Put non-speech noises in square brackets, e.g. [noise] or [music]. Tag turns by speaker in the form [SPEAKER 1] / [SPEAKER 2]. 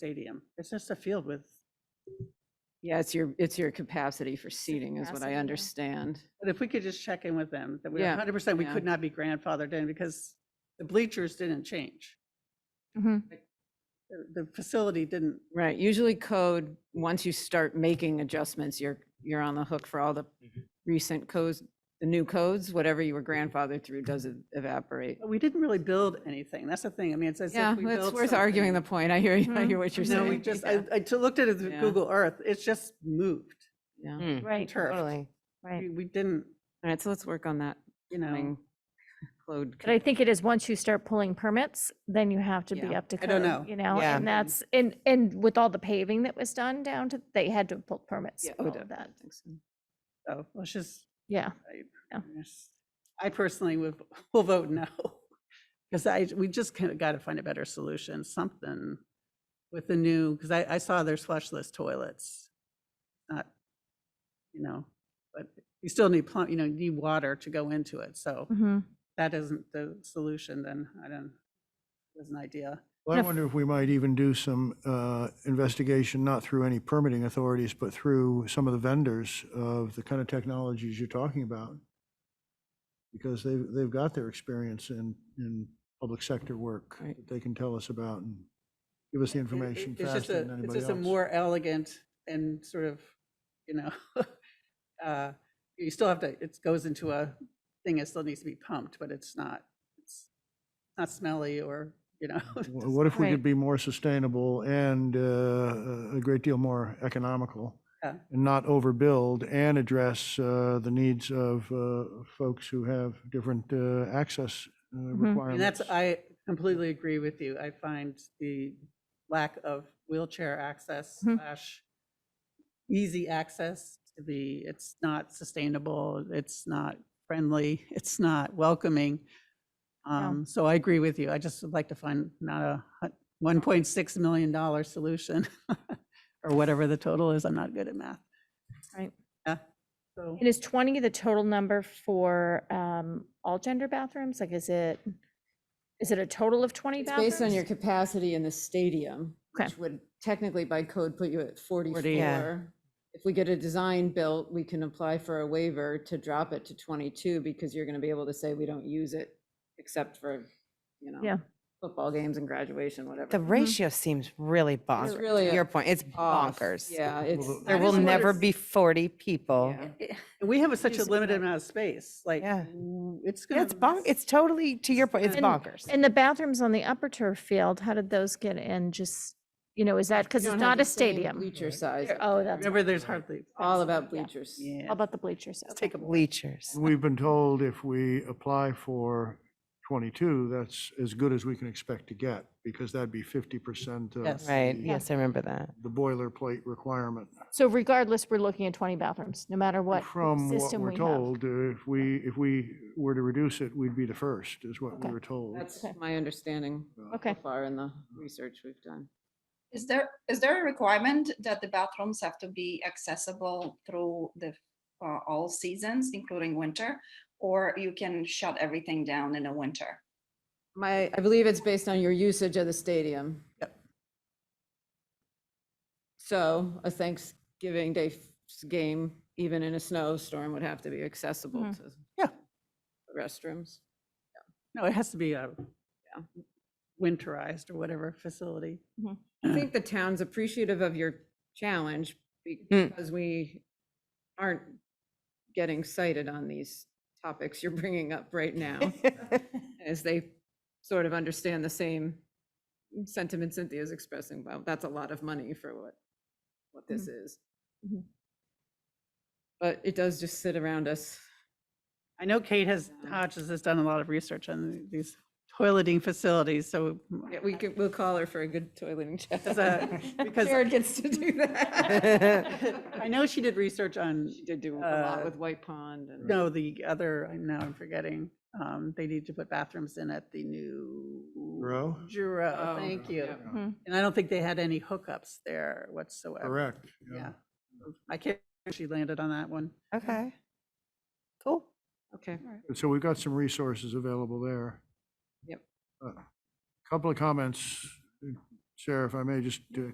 [SPEAKER 1] stadium. It's just a field with,
[SPEAKER 2] Yeah, it's your, it's your capacity for seating is what
[SPEAKER 3] capacity,
[SPEAKER 2] I
[SPEAKER 3] yeah.
[SPEAKER 2] understand.
[SPEAKER 1] but if we could just check in with them, that we
[SPEAKER 2] Yeah,
[SPEAKER 1] hundred percent, we
[SPEAKER 2] yeah.
[SPEAKER 1] could not be grandfathered in because the bleachers didn't change.
[SPEAKER 3] Mhm.
[SPEAKER 1] The- The facility didn't,
[SPEAKER 2] Right, usually code, once you start making adjustments, you're, you're on the hook for all the recent codes, the new codes, whatever you were grandfathered through does e, evaporate.
[SPEAKER 1] but we didn't really build anything. That's the thing. I mean, it's Oh, as
[SPEAKER 2] Yeah,
[SPEAKER 1] if we
[SPEAKER 2] it's
[SPEAKER 1] built
[SPEAKER 2] worth arguing the
[SPEAKER 1] something.
[SPEAKER 2] point. I hear, you. I
[SPEAKER 3] Mhm.
[SPEAKER 2] hear what you're
[SPEAKER 1] No,
[SPEAKER 2] saying.
[SPEAKER 1] we just, I,
[SPEAKER 2] Yeah,
[SPEAKER 1] I t- looked at it with
[SPEAKER 2] Yeah.
[SPEAKER 1] Google Earth. It's just moved.
[SPEAKER 2] yeah.
[SPEAKER 4] Mm.
[SPEAKER 3] Right,
[SPEAKER 1] turf.
[SPEAKER 4] Totally.
[SPEAKER 3] right.
[SPEAKER 1] We, we didn't,
[SPEAKER 2] All right, so let's work on that.
[SPEAKER 1] you know,
[SPEAKER 2] coming Code.
[SPEAKER 3] But I think it is, once you start pulling permits, then you have to be
[SPEAKER 2] Yeah.
[SPEAKER 3] up to
[SPEAKER 1] I don't know.
[SPEAKER 3] code, you know?
[SPEAKER 4] Yeah.
[SPEAKER 3] And that's, and, and with all the paving that was done down to, they had to pull permits
[SPEAKER 2] Yeah,
[SPEAKER 3] for
[SPEAKER 2] oh,
[SPEAKER 3] all of
[SPEAKER 2] definitely,
[SPEAKER 3] that.
[SPEAKER 2] I think so.
[SPEAKER 1] so let's just,
[SPEAKER 3] Yeah, Yeah.
[SPEAKER 1] yes. I personally would, [laughs] will vote no. Because I, we just kind of got to find a better solution, something with the new, because I, I saw there's flushless toilets. Not, you know, but you still need plumb, you know, you need water to go into it. So
[SPEAKER 3] hmm
[SPEAKER 1] that isn't the solution, then I don't, was an idea.
[SPEAKER 5] Well, I
[SPEAKER 3] Enough.
[SPEAKER 5] wonder if we might even do some uh, investigation, not through any permitting authorities, but through some of the vendors of the kind of technologies you're talking about. Because they've, they've got their experience in, in public sector work
[SPEAKER 2] Right.
[SPEAKER 5] that they can tell us about and give us the
[SPEAKER 1] It- it-
[SPEAKER 5] information
[SPEAKER 1] it's just
[SPEAKER 5] faster
[SPEAKER 1] a-
[SPEAKER 5] than
[SPEAKER 1] It's
[SPEAKER 5] anybody
[SPEAKER 1] just a
[SPEAKER 5] else.
[SPEAKER 1] more elegant and sort of, you know, [laughs] uh, you still have to, it goes into a thing that still needs to be pumped, but it's not, it's not smelly or, you know. it
[SPEAKER 5] Wh-
[SPEAKER 1] doesn't-
[SPEAKER 5] What if we
[SPEAKER 3] Right.
[SPEAKER 5] could be more sustainable and uh, a great deal more economical?
[SPEAKER 1] Yeah.
[SPEAKER 5] And not overbuild and address uh, the needs of uh, folks who have different uh, access uh,
[SPEAKER 1] Mm-hmm. And that's,
[SPEAKER 5] requirements.
[SPEAKER 1] I completely agree with you. I find the lack of wheelchair access
[SPEAKER 3] Mhm.
[SPEAKER 1] slash easy access to be, it's not sustainable, it's not friendly, [laughs] it's not welcoming. Um, So I agree with you. I just would like to find not a hu- $1.6 million dollar solution [laughs] or whatever the total is. I'm not good at math.
[SPEAKER 3] Right.
[SPEAKER 1] Yeah. So
[SPEAKER 3] And is twenty the total number for, um, all gender bathrooms? Like, is it, is it a total of twenty
[SPEAKER 2] It's
[SPEAKER 3] bathrooms?
[SPEAKER 2] based on your capacity in the stadium,
[SPEAKER 3] Okay.
[SPEAKER 2] which would technically by code put you at
[SPEAKER 4] Yeah.
[SPEAKER 2] forty-four. If we get a design built, we can apply for a waiver to drop it to twenty-two because you're gonna be able to say we don't use it except for, you know.
[SPEAKER 3] Yeah.
[SPEAKER 2] Football games and graduation, whatever.
[SPEAKER 4] The ratio seems really bonkers.
[SPEAKER 2] Mm-hmm. really
[SPEAKER 4] to Your
[SPEAKER 2] a-
[SPEAKER 4] point, it's
[SPEAKER 2] Off,
[SPEAKER 4] bonkers.
[SPEAKER 2] Yeah, it's.
[SPEAKER 5] Well,
[SPEAKER 4] There
[SPEAKER 1] I
[SPEAKER 4] will
[SPEAKER 1] just wonder
[SPEAKER 4] never
[SPEAKER 1] if-
[SPEAKER 4] be 40 people.
[SPEAKER 2] Yeah.
[SPEAKER 1] and we have such a
[SPEAKER 2] Use-
[SPEAKER 1] limited amount of space, like,
[SPEAKER 4] Yeah.
[SPEAKER 1] w- it's
[SPEAKER 4] Yeah,
[SPEAKER 1] going to.
[SPEAKER 4] It's bonk, it's totally, to your point, it's
[SPEAKER 3] And-
[SPEAKER 4] bonkers.
[SPEAKER 3] And the bathrooms on the upper turf field, how did those get in? Just, you know, is that, because
[SPEAKER 2] you
[SPEAKER 3] it's
[SPEAKER 2] don't have
[SPEAKER 3] not
[SPEAKER 2] the
[SPEAKER 3] a
[SPEAKER 2] same
[SPEAKER 3] stadium?
[SPEAKER 2] Bleacher size,
[SPEAKER 3] Oh, that's
[SPEAKER 1] Remember, there's hardly.
[SPEAKER 2] all about
[SPEAKER 3] yeah.
[SPEAKER 2] bleachers.
[SPEAKER 1] Yeah.
[SPEAKER 3] How about the bleachers?
[SPEAKER 1] Let's
[SPEAKER 3] Okay.
[SPEAKER 1] take a break.
[SPEAKER 4] Bleachers.
[SPEAKER 5] We've been told if we apply for 22, that's as good as we can expect to get, because that'd be 50% of
[SPEAKER 1] Yes.
[SPEAKER 4] Right,
[SPEAKER 5] the-
[SPEAKER 4] yes, I remember that.
[SPEAKER 5] the boilerplate requirement.
[SPEAKER 3] So regardless, we're looking at twenty bathrooms, no matter what
[SPEAKER 5] From what
[SPEAKER 3] system
[SPEAKER 5] we're
[SPEAKER 3] we have.
[SPEAKER 5] told, uh, if we, if we were to reduce it, we'd be the first, is what we
[SPEAKER 3] Okay.
[SPEAKER 5] were told.
[SPEAKER 2] That's
[SPEAKER 3] Okay.
[SPEAKER 2] my understanding so
[SPEAKER 3] Okay.
[SPEAKER 2] far in the research we've done.
[SPEAKER 6] Is there, is there a requirement that the bathrooms have to be accessible through the, uh, all seasons, including winter? Or you can shut everything down in the winter?
[SPEAKER 2] My, I believe it's based on your usage of the stadium.
[SPEAKER 1] Yep.
[SPEAKER 2] So a Thanksgiving Day s- game, even in a snowstorm, would have to be accessible
[SPEAKER 3] Mhm.
[SPEAKER 2] to.
[SPEAKER 1] Mm-hmm. Yeah.
[SPEAKER 2] Restrooms.
[SPEAKER 1] No, it has to be a
[SPEAKER 2] Yeah.
[SPEAKER 1] winterized or whatever facility.
[SPEAKER 2] I think the town's appreciative of your challenge
[SPEAKER 4] Mm.
[SPEAKER 2] because we aren't getting cited on these topics you're bringing up right
[SPEAKER 1] [laughs]
[SPEAKER 2] now. as they sort of understand the same sentiment Cynthia's expressing about, that's a lot of money for what, what this
[SPEAKER 1] Mm-hmm.
[SPEAKER 2] is.
[SPEAKER 3] Mhm.
[SPEAKER 2] But it does just sit around us.
[SPEAKER 1] I know Kate has,
[SPEAKER 2] Yeah.
[SPEAKER 1] Hodges has done a lot of research on these toileting facilities, so.
[SPEAKER 2] Yeah, We could, we'll call her for a good toileting chat.
[SPEAKER 1] As
[SPEAKER 2] [laughs]
[SPEAKER 1] a- because-
[SPEAKER 2] Jared gets to do that.
[SPEAKER 1] [laughs] [laughs] I know she did research on,
[SPEAKER 2] She did do a lot
[SPEAKER 1] uh,
[SPEAKER 2] with White Pond and.
[SPEAKER 1] no, the other, I know, I'm forgetting. Um, They need to put bathrooms in at the new.
[SPEAKER 5] Row?
[SPEAKER 1] Juro,
[SPEAKER 2] Oh,
[SPEAKER 1] thank you.
[SPEAKER 2] yeah.
[SPEAKER 3] Hmm.
[SPEAKER 1] And I don't think they had any hookups there whatsoever.
[SPEAKER 5] Correct.
[SPEAKER 1] Yeah. I can't, remember if she landed on that one.
[SPEAKER 4] Okay. Cool.
[SPEAKER 2] Okay,
[SPEAKER 5] So we've got some resources available there.
[SPEAKER 2] Yep.
[SPEAKER 5] Uh, Couple of comments, Sarah, if I may, just to